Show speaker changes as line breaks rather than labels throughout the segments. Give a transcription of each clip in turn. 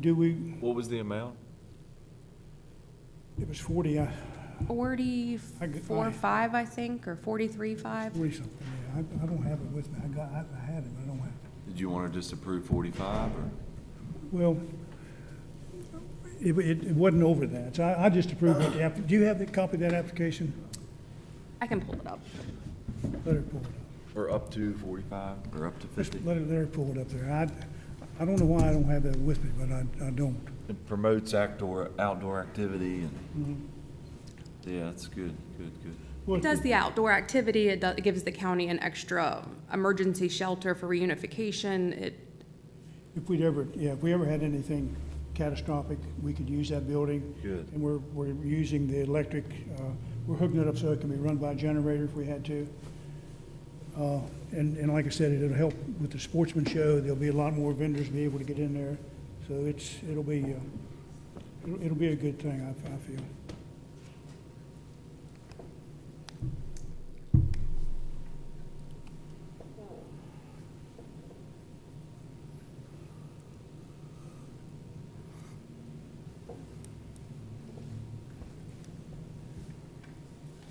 Do we,
What was the amount?
it was 40, I, I g- I-
Forty-four, five, I think, or forty-three, five.
40 something, yeah. I, I don't have it with me. I got, I I had it, but I don't have it.
Did you want to just approve 45 or?
Well, it, it it wasn't over that, so I, I just approved it. Yeah, Do you have the copy of that application?
I can pull it up.
Let her pull it up.
Or up to 45? Or up to
Just
50?
let her, let her pull it up there. I, I don't know why I don't have that with me, but I, I don't.
It promotes outdoor, outdoor activity and,
Mm-hmm.
yeah, that's good, good, good.
It does the outdoor activity, it does, it gives the county an extra emergency shelter for reunification, it,
If we'd ever, yeah, if we ever had anything catastrophic, we could use that building.
Good.
And we're, we're using the electric, uh, we're hooking it up so it can be run by a generator if we had to. Uh, and, and like I said, it'll help with the sportsman show, there'll be a lot more vendors be able to get in there. So it's, it'll be, uh, it'll, it'll be a good thing, I, I feel.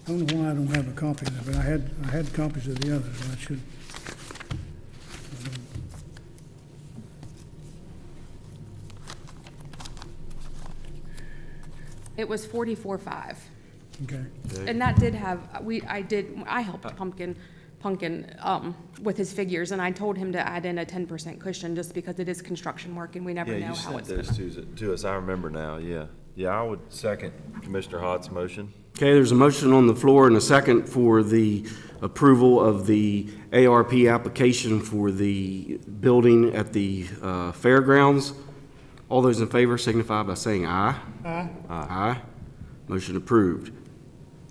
I don't know why I don't have a copy of it, but I had, I had copies of the others, I should.
it was forty-four, five.
Okay,
And that did have, we, I did, I helped Pumpkin, Pumpkin, um, with his figures, and I told him to add in a ten percent cushion, just because it is construction work and we never
Yeah,
know
you
how
sent
it's gonna.
those to, to us, I remember now, yeah. Yeah, I would second Commissioner Hott's motion.
Okay, there's a motion on the floor and a second for the approval of the ARP application for the building at the uh, fairgrounds. All those in favor signify by saying aye. Aye. Aye. Motion approved.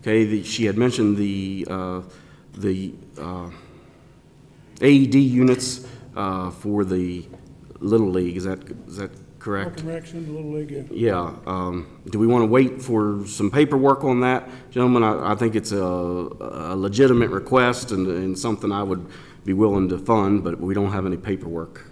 Okay, the- she had mentioned the, uh, the uh, AED units uh, for the Little League, is that, is that correct?
Park and Rec's in the Little League, yeah.
Yeah, um, do we want to wait for some paperwork on that? Gentlemen, I, I think it's a, a legitimate request and, and something I would be willing to fund, but we don't have any paperwork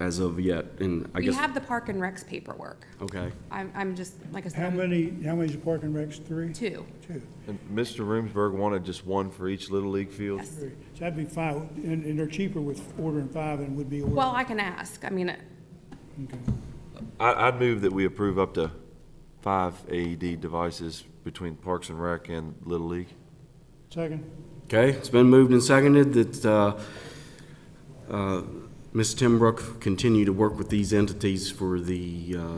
as of yet, and I
We
guess.
have the Park and Recs paperwork.
Okay,
I'm, I'm just, like I said,
How
I'm
many, how many's the Park and Rec's, three?
two.
Two.
And Mr. Roomsberg wanted just one for each Little League field?
Yes.
So that'd be five, and, and they're cheaper with ordering five than would be ordering.
Well, I can ask, I mean,
Okay.
I, I'd move that we approve up to five AED devices between Parks and Rec and Little League.
Second,
okay, it's been moved and seconded that, uh, uh, Ms. Timbrook continue to work with these entities for the, uh,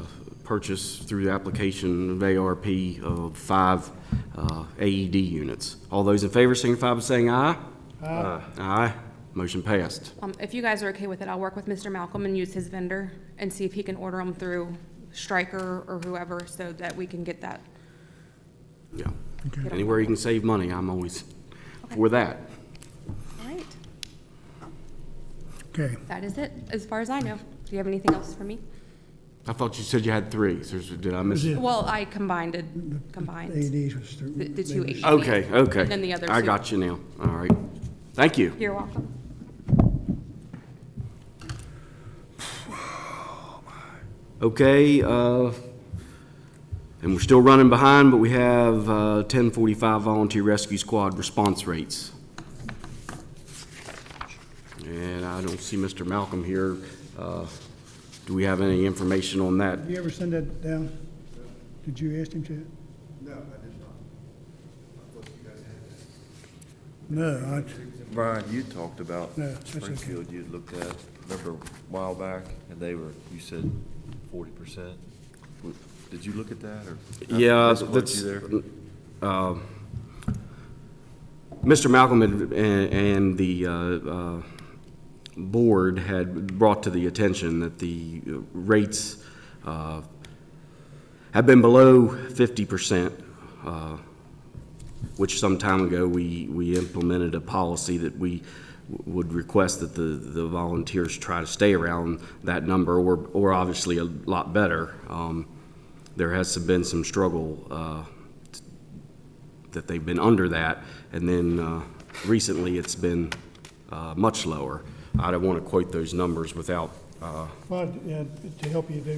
purchase through the application of ARP of five, uh, AED units. All those in favor signify by saying aye.
Aye.
Aye. Motion passed.
um, if you guys are okay with it, I'll work with Mr. Malcolm and use his vendor and see if he can order them through Stryker or whoever, so that we can get that.
Yeah. Anywhere you can save money, I'm always for that.
All right,
okay.
that is it, as far as I know. Do you have anything else for me?
I thought you said you had three. So Did I miss?
Yeah.
Well, I combined it, combined
AEDs was. through-
the the two
they was-
HVAC.
Okay, okay.
And then the other
I
two.
got you now. All right. Thank you.
You're welcome.
Okay, uh, and we're still running behind, but we have, uh, ten forty-five volunteer rescue squad response rates. And I don't see Mr. Malcolm here. Uh, do we have any information on that?
Did you ever send that down? Did you ask him to? No, I did
Brian, you talked about
No, that's okay.
Springfield, you looked at, remember a while back, and they were, you said forty percent? Did you look at that, or?
Yeah,
Chris, weren't you
that's,
there?
Mr. Malcolm had- and, and the, uh, uh, board had brought to the attention that the rates, uh, have been below fifty percent, uh, which some time ago, we, we implemented a policy that we would request that the, the volunteers try to stay around that number, or, or obviously a lot better. Um, there has been some struggle, uh, that they've been under that, and then uh, recently, it's been uh, much lower. I don't want to quote those numbers without uh,
Well, yeah, to help you, they